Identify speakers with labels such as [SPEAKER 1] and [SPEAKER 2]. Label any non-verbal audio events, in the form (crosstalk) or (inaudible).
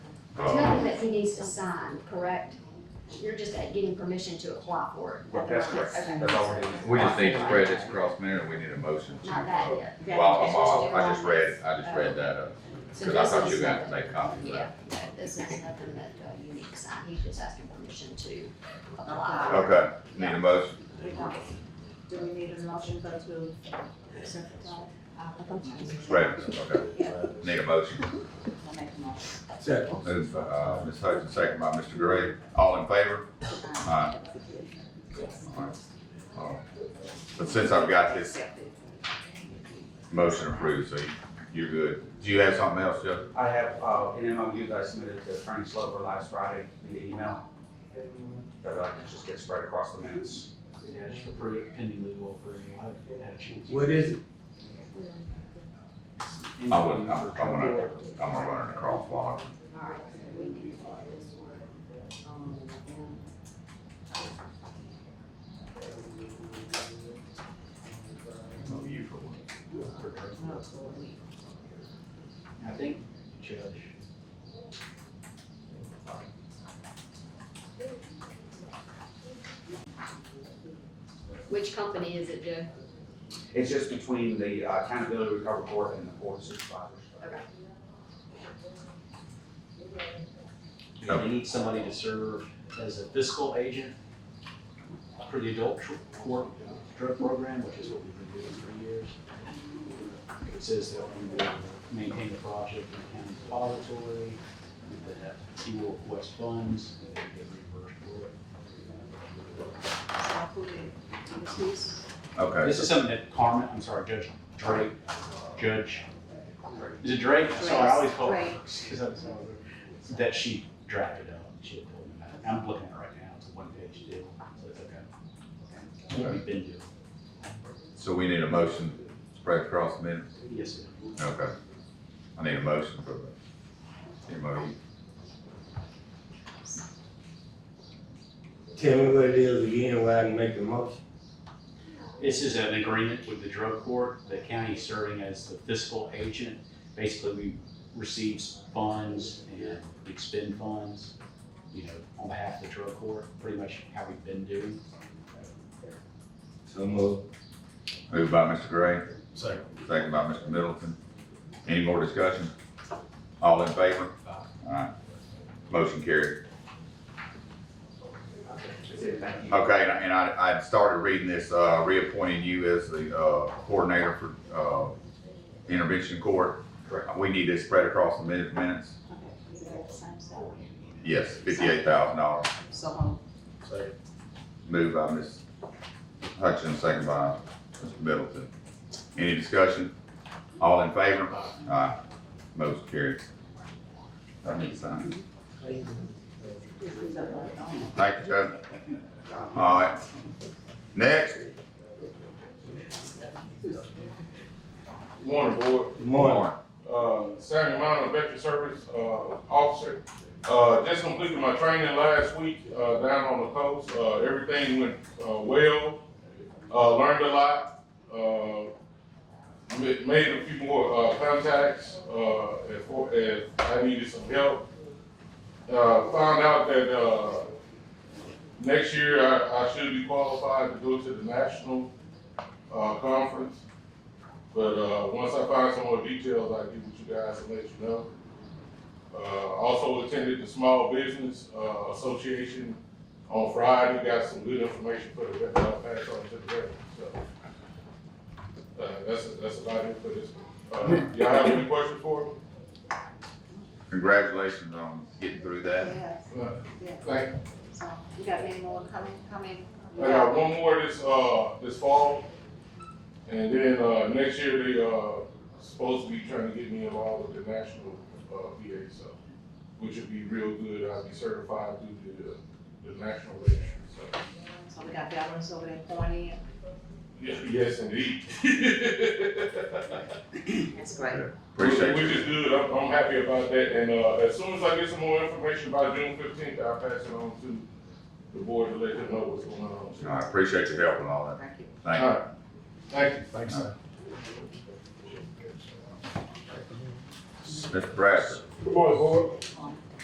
[SPEAKER 1] he needs to sign, correct? You're just at getting permission to apply for it.
[SPEAKER 2] Right, that's correct.
[SPEAKER 1] Okay.
[SPEAKER 2] That's all we're doing.
[SPEAKER 3] We just need to spread this across minute, we need a motion to,
[SPEAKER 1] Not that
[SPEAKER 3] uh,
[SPEAKER 1] yet.
[SPEAKER 4] Yeah,
[SPEAKER 3] well,
[SPEAKER 4] that's
[SPEAKER 3] I'm
[SPEAKER 4] what
[SPEAKER 3] all,
[SPEAKER 4] you do
[SPEAKER 3] I just
[SPEAKER 4] on
[SPEAKER 3] read,
[SPEAKER 4] this.
[SPEAKER 3] I just read that up,
[SPEAKER 1] So
[SPEAKER 3] cause I
[SPEAKER 1] this
[SPEAKER 3] thought
[SPEAKER 1] is
[SPEAKER 3] you guys
[SPEAKER 1] nothing-
[SPEAKER 3] made copies of
[SPEAKER 1] Yeah,
[SPEAKER 3] that.
[SPEAKER 1] no, this is nothing that uh, you need to sign, he's just asking permission to
[SPEAKER 4] Apply.
[SPEAKER 1] apply.
[SPEAKER 3] Okay, need a motion,
[SPEAKER 4] Do we need a motion for to accept the call?
[SPEAKER 3] spread it, okay. Need a motion,
[SPEAKER 4] I make a motion.
[SPEAKER 5] Second.
[SPEAKER 3] moved by, uh, Ms. Hutchins, second by Mr. Gray, all in favor? Aye. Alright. Uh, But since I've got this motion approved, so you're good, do you have something else, Jeff?
[SPEAKER 2] I have, uh, an MOU that I submitted to Frank Slover last Friday in the email. That I can just get spread across the minutes.
[SPEAKER 6] Yeah, just approve it pending legal approval. I haven't had a chance.
[SPEAKER 5] What is it?
[SPEAKER 3] I wouldn't, I'm, I'm gonna, I'm gonna run it across while I'm
[SPEAKER 1] Alright, so we can do this one. Um,
[SPEAKER 3] on you for one.
[SPEAKER 6] I think, Judge,
[SPEAKER 1] Which company is it, Joe?
[SPEAKER 2] It's just between the uh, accountability recovery board and the board of supervisors.
[SPEAKER 6] do you need somebody to serve as a fiscal agent for the adult tr- court drug program, which is what we've been doing for years? It says that we will maintain the project in the county depository, that he will request funds, and that we get reimbursed for it.
[SPEAKER 3] Okay,
[SPEAKER 6] This is something that Carmen, I'm sorry, Judge Drake, Judge, is it Drake? Sorry, I always call her,
[SPEAKER 4] Drake.
[SPEAKER 6] 'cause I'm sorry. that she drafted up, she had told me about it. I'm looking at it right now, it's a one-page deal, so it's okay. We've been doing,
[SPEAKER 3] so we need a motion spread across the minutes?
[SPEAKER 6] it. yes, sir.
[SPEAKER 3] Okay. I need a motion for the MOU.
[SPEAKER 5] Tell me what it is again, where I can make the motion.
[SPEAKER 6] This is an agreement with the drug court, the county serving as the fiscal agent. Basically, we receive funds and expend funds, you know, on behalf of the drug court, pretty much how we've been doing.
[SPEAKER 5] So move.
[SPEAKER 3] Moved by Mr. Gray,
[SPEAKER 5] Second.
[SPEAKER 3] second by Mr. Middleton. Any more discussion? All in favor?
[SPEAKER 6] Aye.
[SPEAKER 3] Alright. Motion carried.
[SPEAKER 2] That's it, thank you.
[SPEAKER 3] Okay, and I- and I, I started reading this, uh, reappointing you as the, uh, coordinator for, uh, intervention court.
[SPEAKER 2] Correct.
[SPEAKER 3] We need this spread across the min- minutes. Yes, fifty-eight thousand dollars.
[SPEAKER 4] So, um,
[SPEAKER 3] Moved by Ms. Hutchins, second by Mr. Middleton. Any discussion? All in favor? Aye. Motion carried. I need to sign. Thank you, Judge. All right. Next,
[SPEAKER 7] Morning, board.
[SPEAKER 5] Good morning.
[SPEAKER 7] Uh, Samuel Minor, Veteran Service, uh, Officer. Uh, just completed my training last week, uh, down on the coast. Uh, everything went, uh, well. Uh, learned a lot. Uh, ma- made a few more, uh, contacts, uh, if, if I needed some help. Uh, found out that, uh, next year I, I should be qualified to go to the national, uh, conference. But uh, once I find some more details, I'll get with you guys and let you know. Uh, also attended the Small Business uh, Association on Friday, got some good information for the rep, I'll pass on to the rep, so. Uh, that's, that's about it for this. Uh, y'all have any questions for me?
[SPEAKER 3] congratulations on getting through that.
[SPEAKER 4] yes,
[SPEAKER 7] No.
[SPEAKER 4] Yeah.
[SPEAKER 7] Thank
[SPEAKER 4] so, you got any more coming, coming?
[SPEAKER 7] I got one more this, uh, this fall, and then, uh, next year they, uh, supposed to be trying to get me involved with the national, uh, VA, so, which would be real good, I'll be certified through the, the national registry, so,
[SPEAKER 4] So we got veterans over there pointing
[SPEAKER 7] yes, yes (laughs) indeed.
[SPEAKER 4] in. That's great.
[SPEAKER 3] Appreciate
[SPEAKER 7] Which
[SPEAKER 3] you.
[SPEAKER 7] is good, I'm, I'm happy about that, and, uh, as soon as I get some more information by June fifteenth, I'll pass it on to the board to let them know what's going on.
[SPEAKER 3] I appreciate your help and all that.
[SPEAKER 4] Thank you.
[SPEAKER 3] Thank
[SPEAKER 7] All
[SPEAKER 3] you.
[SPEAKER 7] right. Thank you.
[SPEAKER 6] Thanks,
[SPEAKER 3] sir. Mr. Bradford,
[SPEAKER 7] Good morning, board.